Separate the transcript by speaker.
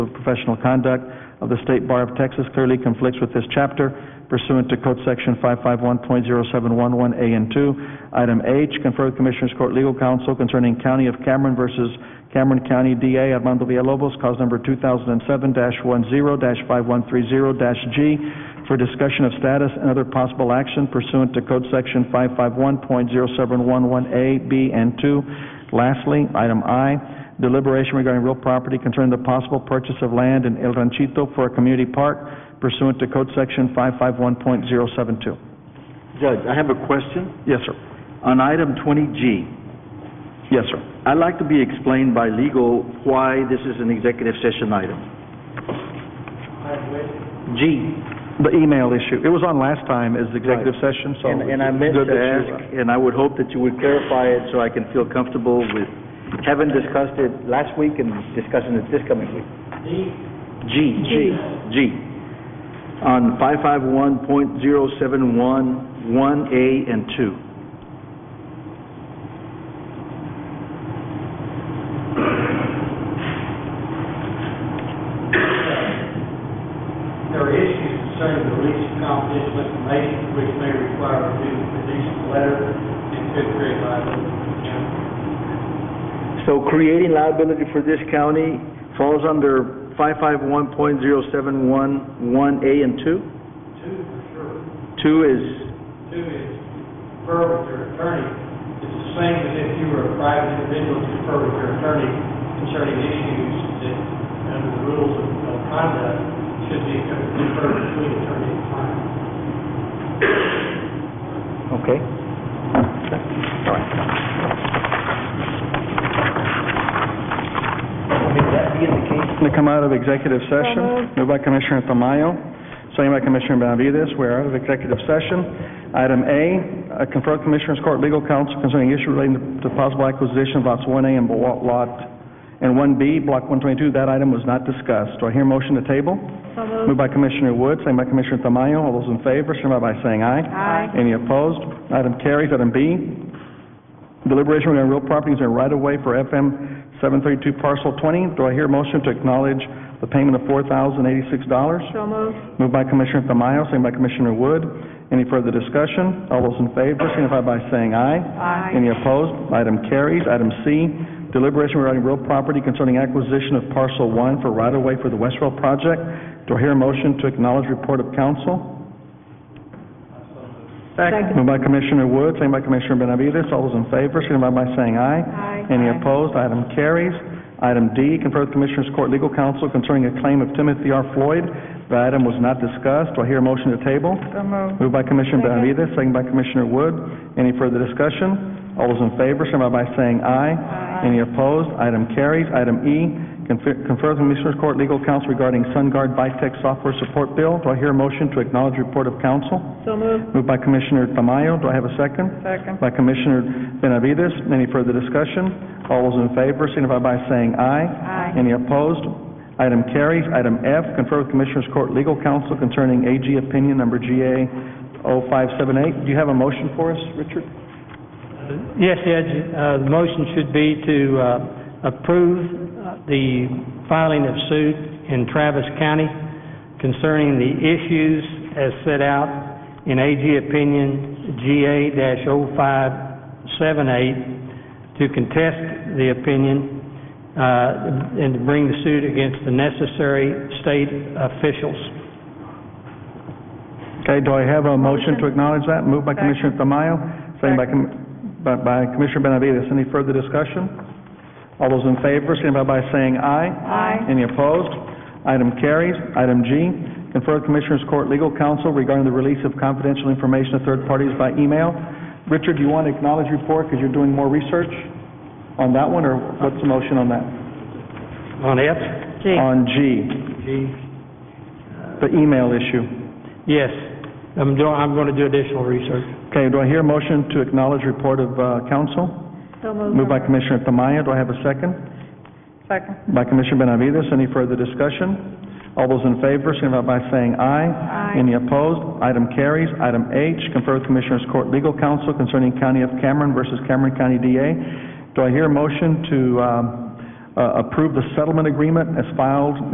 Speaker 1: of professional conduct of the State Bar of Texas clearly conflicts with this chapter pursuant to Code Section 551.0711A and 2. Item H, confer with Commissioners Court Legal Counsel concerning County of Cameron versus Cameron County DA Armando Villalobos, cause number 2007-10-5130-G, for discussion of status and other possible action pursuant to Code Section 551.0711A, B, and 2. Lastly, item I, deliberation regarding real property concerning the possible purchase of land in El Ranchito for a community park pursuant to Code Section 551.072.
Speaker 2: Judge, I have a question.
Speaker 1: Yes, sir.
Speaker 2: On item 20G,
Speaker 1: Yes, sir.
Speaker 2: I'd like to be explained by legal why this is an executive session item. G,
Speaker 1: The email issue, it was on last time as executive session, so.
Speaker 2: and and I meant to
Speaker 1: Good that you-
Speaker 2: ask, and I would hope that you would clarify it so I can feel comfortable with having discussed it last week and discussing it this coming week. G. G. G. On 551.0711 1A and 2.
Speaker 3: There are issues concerning the release of confidential information which may require review of the release letter and could create liability for the county.
Speaker 1: uh,
Speaker 2: So creating liability for this county falls under 551.0711A and 2?
Speaker 3: Two, for sure.
Speaker 2: 2 is,
Speaker 3: Two is confer with your attorney. It's the same as if you were a private individual to confer with your attorney concerning issues that, under the rules of of conduct, should be conferred between attorney and client.
Speaker 2: okay. All right. With that being the case,
Speaker 1: To come out of executive session, moved by Commissioner Tamayo, second by Commissioner Benavides, we're out of executive session. Item A, uh, confer with Commissioners Court Legal Counsel concerning issue relating to possible acquisition of lots 1A and Lot, lot- and 1B, Block 122, that item was not discussed. Do I hear motion to table? Moved by Commissioner Wood, second by Commissioner Tamayo, all those in favor, signify by saying aye. Aye. Any opposed? Item carries. Item B, Deliberation regarding real properties and right-of-way for FM 732 parcel 20. Do I hear a motion to acknowledge the payment of $4,086? So moved. Moved by Commissioner Tamayo, second by Commissioner Wood. Any further discussion? All those in favor signify by saying aye. Aye. Any opposed? Item carries. Item C, deliberation regarding real property concerning acquisition of parcel 1 for right-of-way for the Westfield project. Do I hear a motion to acknowledge report of council? Second. Moved by Commissioner Wood, second by Commissioner Benavides. All those in favor, signify by saying aye. Aye. Any opposed? Item carries. Item D, confer with Commissioners Court Legal Counsel concerning a claim of Timothy R. Floyd. The item was not discussed. Do I hear a motion to table? Moved by Commissioner Benavides, second by Commissioner Wood. Any further discussion? All those in favor, signify by saying aye. Aye. Any opposed? Item carries. Item E, confer confer with Commissioners Court Legal Counsel regarding SunGuard Vitech Software Support Bill. Do I hear a motion to acknowledge report of counsel? Moved by Commissioner Tamayo, do I have a second? Second. By Commissioner Benavides, any further discussion? All those in favor signify by saying aye. Aye. Any opposed? Item carries. Item F, confer with Commissioners Court Legal Counsel concerning AG opinion number oh GA 0578. Do you have a motion for us, Richard?
Speaker 4: Yes, Judge, uh, the motion should be to uh, approve uh, the filing of suit in Travis County concerning the issues as set out in AG Opinion GA-0578 to contest the opinion uh, and to bring the suit against the necessary state officials.
Speaker 1: Okay, do I have a motion to acknowledge that? Moved by Commissioner Tamayo, second by Com- by by Commissioner Benavides. Any further discussion? All those in favor, signify by saying aye. Aye. Any opposed? Item carries. Item G, confer with Commissioners Court Legal Counsel regarding the release of confidential information to third parties by email. Richard, do you want to acknowledge your report because you're doing more research on that one, or what's the motion on that?
Speaker 4: On F?
Speaker 1: On G,
Speaker 4: G.
Speaker 1: the email issue.
Speaker 4: Yes, I'm doing, I'm going to do additional research.
Speaker 1: Okay, do I hear a motion to acknowledge report of uh, counsel? Moved by Commissioner Tamayo, do I have a second? Second. By Commissioner Benavides, any further discussion? All those in favor, signify by saying aye. Aye. Any opposed? Item carries. Item H, confer with Commissioners Court Legal Counsel concerning County of Cameron versus Cameron County DA. uh, Do I hear a motion to um, uh, approve the settlement agreement as filed